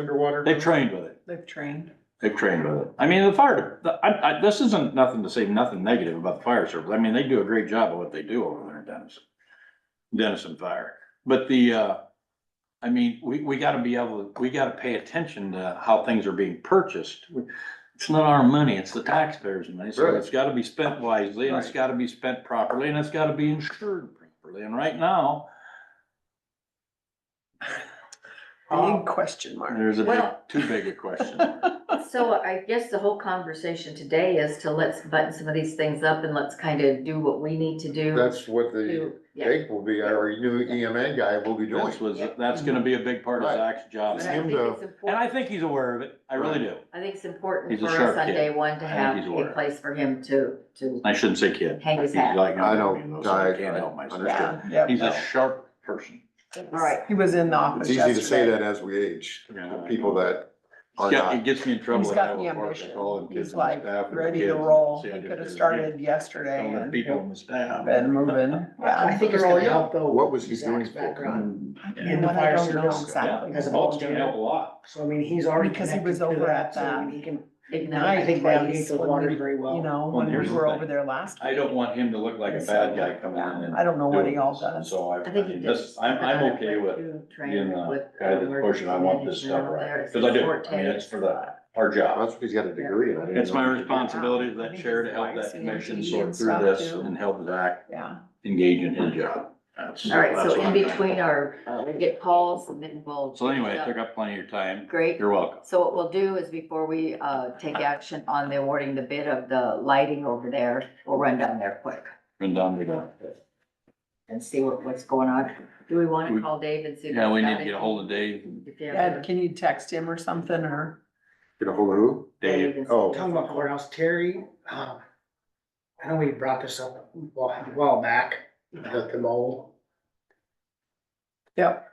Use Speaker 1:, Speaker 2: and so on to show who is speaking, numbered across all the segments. Speaker 1: underwater.
Speaker 2: They've trained with it.
Speaker 3: They've trained.
Speaker 2: They've trained with it. I mean, the fire, the, I, I, this isn't nothing to say nothing negative about the fire service. I mean, they do a great job of what they do over there in Denison. Denison Fire. But the, uh, I mean, we, we gotta be able, we gotta pay attention to how things are being purchased. We- It's not our money, it's the taxpayers' money, so it's gotta be spent wisely, and it's
Speaker 3: Right.
Speaker 2: gotta be spent properly, and it's gotta be insured properly. And right now, Uh,
Speaker 3: Big question mark.
Speaker 2: there's a big,
Speaker 4: Well-
Speaker 2: too big a question.
Speaker 4: So I guess the whole conversation today is to let's button some of these things up and let's kind of do what we need to do.
Speaker 1: That's what the
Speaker 4: to- yeah.
Speaker 1: Jake will be, our new EMA guy will be doing.
Speaker 2: That's was, that's gonna be a big part of
Speaker 1: Right.
Speaker 2: Zach's job.
Speaker 4: But
Speaker 1: It's
Speaker 4: I
Speaker 1: him
Speaker 4: think
Speaker 1: to-
Speaker 4: it's important-
Speaker 2: And I think he's aware of it. I really do.
Speaker 4: I think it's important
Speaker 2: He's a
Speaker 4: for
Speaker 2: sharp
Speaker 4: us on
Speaker 2: kid.
Speaker 4: day one to
Speaker 2: I think
Speaker 4: have
Speaker 2: he's
Speaker 4: a
Speaker 2: aware.
Speaker 4: place for him to, to,
Speaker 2: I shouldn't say kid.
Speaker 4: Hang his
Speaker 2: He's
Speaker 4: hat.
Speaker 2: like,
Speaker 1: I know,
Speaker 2: you so I
Speaker 1: I-
Speaker 2: can't
Speaker 1: I
Speaker 2: help myself.
Speaker 1: understand.
Speaker 4: yeah.
Speaker 3: Yeah.
Speaker 2: He's a sharp person.
Speaker 4: All right.
Speaker 3: He was in the office
Speaker 1: It's easy to say
Speaker 3: yesterday.
Speaker 1: that as we age,
Speaker 2: Yeah.
Speaker 1: people that are
Speaker 2: Yeah, It
Speaker 1: not.
Speaker 2: gets me in trouble.
Speaker 3: He's
Speaker 2: in
Speaker 3: got
Speaker 2: Iowa
Speaker 3: the
Speaker 2: Park. I
Speaker 3: ambition.
Speaker 2: call them kids
Speaker 3: He's
Speaker 2: on the
Speaker 3: like
Speaker 2: staff and the
Speaker 3: ready
Speaker 2: kids
Speaker 3: to
Speaker 2: and say I
Speaker 3: roll. He
Speaker 2: just
Speaker 3: could have
Speaker 2: did it.
Speaker 3: started
Speaker 2: All
Speaker 3: yesterday
Speaker 2: the
Speaker 3: and
Speaker 2: people on the staff.
Speaker 3: been moving.
Speaker 5: I
Speaker 3: Yeah.
Speaker 5: think it's gonna help though.
Speaker 1: What was he
Speaker 5: Zach's
Speaker 1: doing for?
Speaker 5: Background
Speaker 3: You
Speaker 5: in
Speaker 3: know
Speaker 5: the
Speaker 3: what, I
Speaker 5: fire
Speaker 3: don't know
Speaker 5: service,
Speaker 3: exactly.
Speaker 5: Because of
Speaker 2: Oh,
Speaker 5: all-
Speaker 2: it's gonna help a lot.
Speaker 5: so I mean, he's already
Speaker 3: Because he
Speaker 5: connected
Speaker 3: was
Speaker 5: to
Speaker 3: over
Speaker 5: that,
Speaker 3: at
Speaker 5: so I
Speaker 3: that
Speaker 5: mean, he can, I
Speaker 4: ignite.
Speaker 3: Nice.
Speaker 5: think navigates the
Speaker 3: place
Speaker 5: water
Speaker 3: when
Speaker 5: very well.
Speaker 3: You know,
Speaker 2: Well,
Speaker 3: when we
Speaker 2: here's
Speaker 3: were
Speaker 2: the thing.
Speaker 3: over there last.
Speaker 2: I don't want him to look like a bad guy coming in and.
Speaker 3: I don't know what he
Speaker 2: doing
Speaker 3: all
Speaker 2: this.
Speaker 3: does.
Speaker 2: So I,
Speaker 4: I
Speaker 2: I
Speaker 4: think he
Speaker 2: mean,
Speaker 4: does.
Speaker 2: this, I'm, I'm okay
Speaker 4: Went
Speaker 2: with
Speaker 4: through
Speaker 2: being
Speaker 4: training
Speaker 2: the
Speaker 4: with
Speaker 2: guy that's
Speaker 4: emergency
Speaker 2: pushing, I want this
Speaker 4: management
Speaker 2: stuff
Speaker 4: over there.
Speaker 2: right.
Speaker 4: It's
Speaker 2: Cause I do,
Speaker 4: important.
Speaker 2: I mean, it's for the, our job.
Speaker 1: That's because he's got a degree in it. I didn't
Speaker 2: It's my
Speaker 1: know.
Speaker 2: responsibility as that chair to help that commission sort through this and help Zach
Speaker 3: Yeah.
Speaker 2: engage in his job. That's-
Speaker 4: All right,
Speaker 2: that's
Speaker 4: so
Speaker 2: what
Speaker 4: in
Speaker 2: I'm doing.
Speaker 4: between our, uh, we get calls and then we'll.
Speaker 2: So anyway, I took up plenty of your time.
Speaker 4: Great.
Speaker 2: You're welcome.
Speaker 4: So what we'll do is before we, uh, take action on the awarding the bid of the lighting over there, we'll run down there quick
Speaker 2: Been done, been done.
Speaker 4: and see what, what's going on. Do we want
Speaker 2: We-
Speaker 4: to call Dave and see?
Speaker 2: Yeah, we need to get a hold of Dave.
Speaker 3: Ed, can you text him or something or?
Speaker 1: Get a hold of who?
Speaker 2: Dave,
Speaker 1: Oh.
Speaker 5: Talking about courthouse, Terry, um, I know we brought this up a while, a while back, about the mold.
Speaker 3: Yep.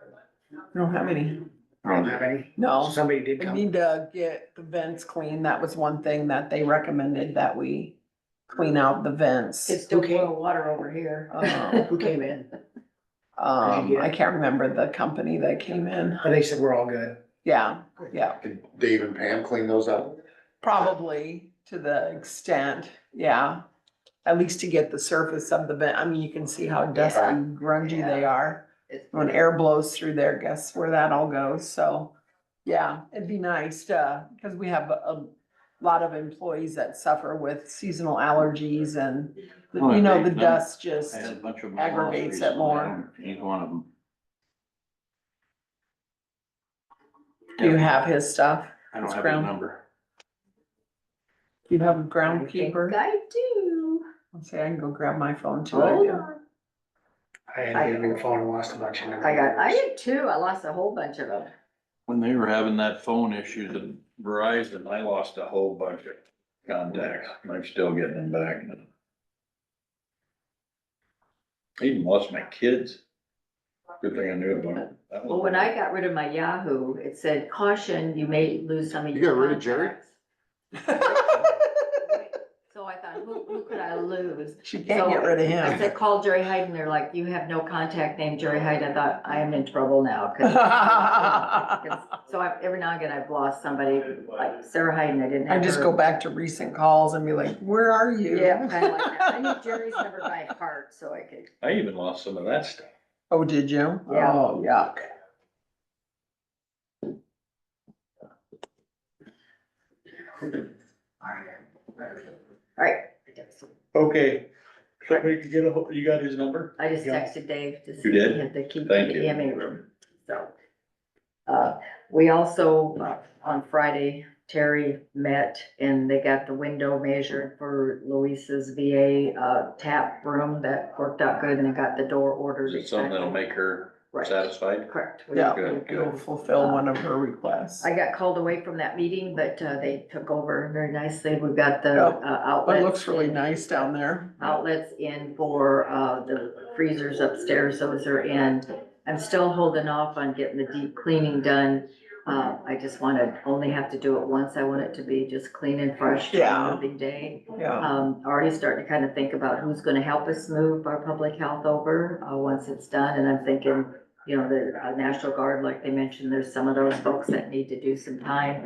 Speaker 3: I don't have any.
Speaker 5: Don't have any,
Speaker 3: No.
Speaker 5: somebody did
Speaker 3: We
Speaker 5: come,
Speaker 3: need to get the vents clean. That was one thing that they recommended that we clean out the vents.
Speaker 4: It's still
Speaker 5: Okay.
Speaker 4: boil water over here.
Speaker 3: Oh.
Speaker 5: who came in,
Speaker 3: Um, I can't remember the company that came in.
Speaker 5: but they said we're all good.
Speaker 3: Yeah, yeah,
Speaker 1: Can Dave and Pam clean those up?
Speaker 3: probably to the extent, yeah. At least to get the surface of the vent. I mean, you can see how dusty,
Speaker 4: Yeah.
Speaker 3: and grungy they
Speaker 4: Yeah.
Speaker 3: are.
Speaker 4: It's-
Speaker 3: When air blows through there, guess where that all goes? So, yeah, it'd be nice to, because we have a a lot of employees that suffer with seasonal allergies and
Speaker 2: Oh,
Speaker 3: You know, the
Speaker 2: no.
Speaker 3: dust
Speaker 2: I
Speaker 3: just,
Speaker 2: had a bunch of. them
Speaker 3: aggravates
Speaker 2: lost
Speaker 3: it more.
Speaker 2: recently. He's one of them.
Speaker 3: do you have his stuff?
Speaker 2: I don't
Speaker 3: his
Speaker 2: have his
Speaker 3: ground?
Speaker 2: number.
Speaker 3: Do you have a
Speaker 4: I think
Speaker 3: groundkeeper?
Speaker 4: I do.
Speaker 3: Let's see, I can go grab my phone too. I
Speaker 4: Hold
Speaker 3: do.
Speaker 4: on.
Speaker 5: I had a new phone and lost a bunch of numbers.
Speaker 4: I got, I did too. I lost a whole bunch of them.
Speaker 2: When they were having that phone issue, the Verizon, I lost a whole bunch of contacts. and I'm still getting them back. I Even lost my kids. Good thing I knew about it. That was-
Speaker 4: Well, when I got rid of my Yahoo, it said caution, you may lose some of
Speaker 1: You
Speaker 4: your.
Speaker 1: got rid of Jerry?
Speaker 4: contacts." So I thought, who, who could I lose?
Speaker 3: She can't get rid of
Speaker 4: I
Speaker 3: him.
Speaker 4: said, call Jerry Hyde and they're like, you have no contact name Jerry Hyde. I thought, I am in trouble now. 'cause- So I, every now and again, I've lost somebody like Sarah Hyde and I didn't have
Speaker 3: I
Speaker 4: her.
Speaker 3: just go back to recent calls and be like, where are you?
Speaker 4: Yeah, kind of like that. I knew Jerry's number by heart, so I could.
Speaker 2: I even lost some of that stuff.
Speaker 3: Oh, did you?
Speaker 4: Yeah.
Speaker 3: Oh, yuck.
Speaker 4: All right.
Speaker 2: Okay, somebody could get a, hold- you got his number?
Speaker 4: I just
Speaker 5: Yeah.
Speaker 4: texted Dave to see.
Speaker 2: You did?
Speaker 4: if They keep the
Speaker 2: Thank you.
Speaker 4: EMA room, so. Uh, we also, uh, on Friday, Terry met and they got the window measured for Luisa's VA, uh, tap room that worked out good and they got the door ordered.
Speaker 2: Is it something that'll make her
Speaker 4: Right.
Speaker 2: satisfied?
Speaker 4: Correct. We-
Speaker 3: Yeah,
Speaker 2: Good, good.
Speaker 3: it'll fulfill one of her requests.
Speaker 4: I got called away from that meeting, but, uh, they took over very nicely. We've got the,
Speaker 3: Yeah.
Speaker 4: uh,
Speaker 3: But
Speaker 4: outlets.
Speaker 3: it looks really
Speaker 4: and-
Speaker 3: nice down there.
Speaker 4: outlets in for uh, the freezers upstairs, those are in. I'm still holding off on getting the deep cleaning done. Uh, I just want to only have to do it once. I want it to be just clean and fresh
Speaker 3: Yeah.
Speaker 4: every day.
Speaker 3: Yeah.
Speaker 4: Um, already starting to kind of think about who's going to help us move our public health over uh, once it's done, and I'm thinking you know, the uh, National Guard, like they mentioned, there's some of those folks that need to do some time.